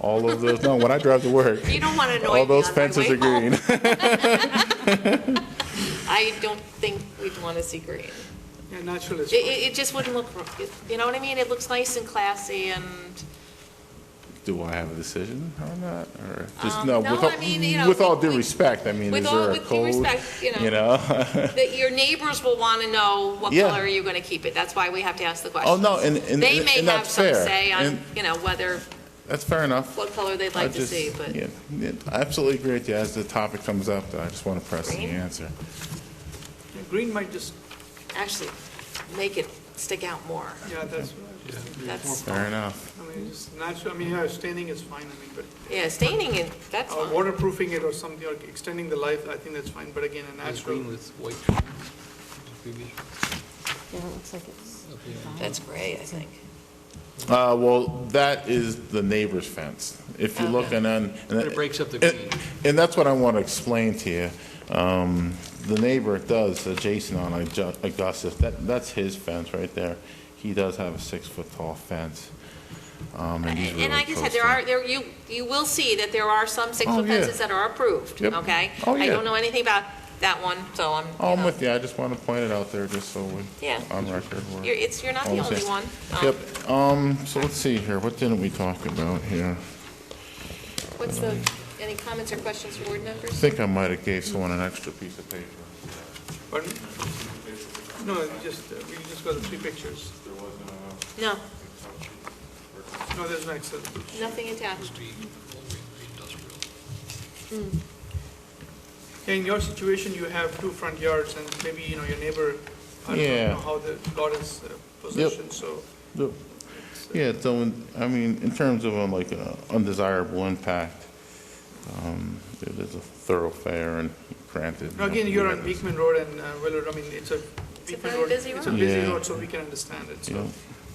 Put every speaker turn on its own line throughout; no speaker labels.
All of those, no, when I drive to work,
You don't want to annoy me
all
on my way
those fences are
home.
green.
I don't think we'd want to see green.
Yeah, natural is
It,
fine.
it, it just wouldn't look, r- you know what I mean? It looks nice and classy and,
Do I have a decision or not, or just,
Um,
no,
no,
with all-
I mean, you know,
with all
we-
due
we-
respect, I mean,
with
is
all-
there a
with due
code?
respect, you know.
You know?
that your neighbors will want to know what
Yeah.
color are you going to keep it? That's why we have to ask the question.
Oh, no, and, and
They may
and
have
that's
some
fair.
say on,
And
you know, whether,
That's fair enough.
what color they'd
I
like to
just-
see, but.
yeah, yeah, I absolutely agree with you. As the topic comes up, I just want to press the
Green?
answer.
Yeah, Green might just,
actually make it stick out more.
yeah, that's, what I was just thinking.
That's,
Fair enough.
I mean, it's natural, I mean, yeah, staining is fine, I mean, but
yeah, staining it, that's
uh,
fine.
waterproofing it or something, or extending the life, I think that's fine, but again, a natural.
Green with white.
Yeah, it looks like it's,
That's gray, I think.
Uh, well, that is the neighbor's fence. If you look and then. and
It breaks up the
and-
green.
And that's what I want to explain to you. Um, the neighbor does, uh, Jason on Augu- Augustus, that, that's his fence right there. He does have a six-foot tall fence. Um, and he's
And
really
like I said,
close
there
to it.
are, there, you, you will see that there are some
Oh,
six-foot
yeah.
fences that are approved,
Yep.
okay?
Oh,
I
yeah.
don't know anything about that one, so I'm,
Oh,
you
I'm
know,
with you. I just want to point it out there just so we.
Yeah.
On record. we're-
you're, it's, you're not
All
the
the
only
same.
one. Um,
Yep, um, so let's see here, what didn't we talk about here?
What's the, any comments or questions for board
I
members?
think I might have gave someone an extra piece of paper.
Pardon? No, it's just, uh, we just got the three pictures.
No,
No, there's no Excel.
nothing attached.
Yeah, In your situation, you have two front yards, and maybe, you know, your neighbor, I
Yeah.
don't know how the lot is uh, positioned, so.
Yep. Yeah, so, in- I mean, in terms of um, like uh, undesirable impact, um, it is a thoroughfare and granted.
Now, again, you're on Beekman Road and uh, Willard, I mean, it's a.
a
Beekman
very busy
It's a
road.
busy
Yeah.
road, so we can understand it,
Yeah.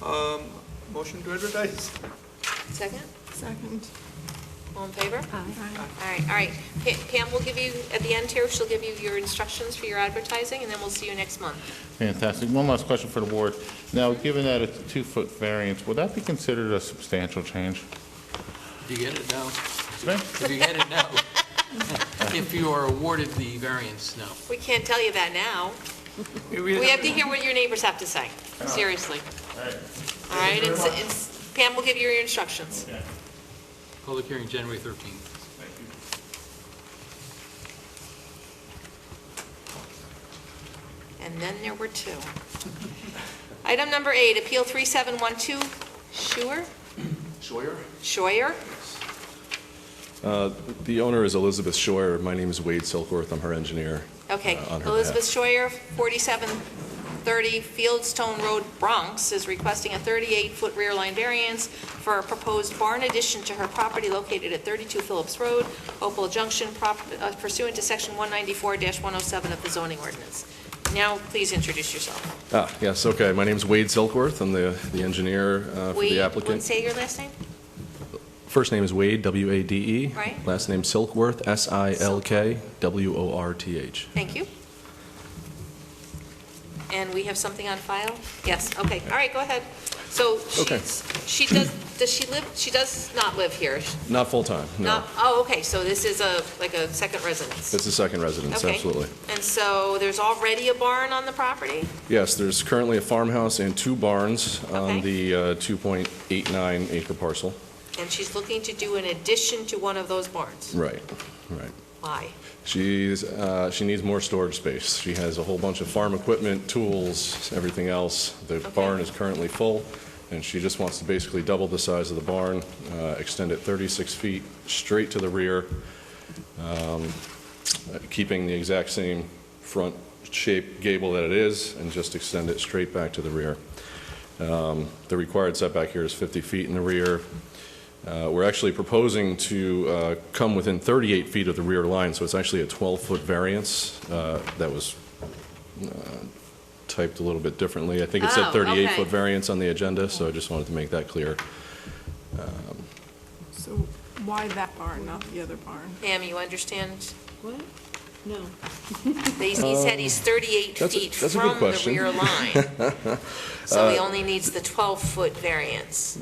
so. Um, Motion to advertise.
Second,
second.
all in favor?
Aye.
All right, all right. Pa- Pam will give you, at the end here, she'll give you your instructions for your advertising, and then we'll see you next month.
Fantastic. One last question for the board. Now, given that it's a two-foot variance, would that be considered a substantial change?
If you get it now,
Okay.
if you get it now, if you are awarded the variance now.
We can't tell you that now. We have to hear what your neighbors have to say, seriously. All right, it's, it's, Pam will give you your instructions.
Public hearing, January 13th.
And then there were two. Item number eight, Appeal 3712, Schuer? Scheuer? Scheuer?
The owner is Elizabeth Scheuer. My name is Wade Silkworth. I'm her engineer.
Okay,
uh, on her
Elizabeth Scheuer,
behalf.
4730 Fieldstone Road, Bronx, is requesting a 38-foot rear line variance for a proposed barn addition to her property located at 32 Phillips Road, Hopewell Junction, prop- uh, pursuant to Section 194-107 of the zoning ordinance. Now, please introduce yourself.
Ah, yes, okay. My name's Wade Silkworth. I'm the the engineer uh, for
Wade,
the
want
applicant.
say your last name?
First name is Wade, W-A-D-E.
Right.
E. Last name Silkworth, S-I-L-K-W-O-R-T-H.
Thank you. And we have something on file? Yes, okay, all right, go ahead. So
Okay.
she's, she does, does she live, she does not live here,
Not full-time, no.
Not- Oh, okay, so this is a, like a second residence?
It's a second residence,
Okay.
absolutely.
And so there's already a barn on the property?
Yes, there's currently a farmhouse and two barns
Okay.
on the uh, 2.89 acre parcel.
And she's looking to do an addition to one of those barns?
Right, right.
Why?
She's, uh, she needs more storage space. She has a whole bunch of farm equipment, tools, everything else. The barn is currently full, and she just wants to basically double the size of the barn, uh, extend it 36 feet straight to the rear, um, uh, keeping the exact same front shape gable that it is, and just extend it straight back to the rear. Um, The required setback here is 50 feet in the rear. Uh, We're actually proposing to uh, come within 38 feet of the rear line, so it's actually a 12-foot variance uh, that was uh, typed a little bit differently. I think it said
Oh,
38-foot
okay.
variance on the agenda, so I just wanted to make that clear.
So why that barn, not the other barn?
Pam, you understand?
What? No.
They- He said he's 38
Um, that's a-
feet
that's a good
from
Uh,
the
question.
rear line. So he only needs the 12-foot variance.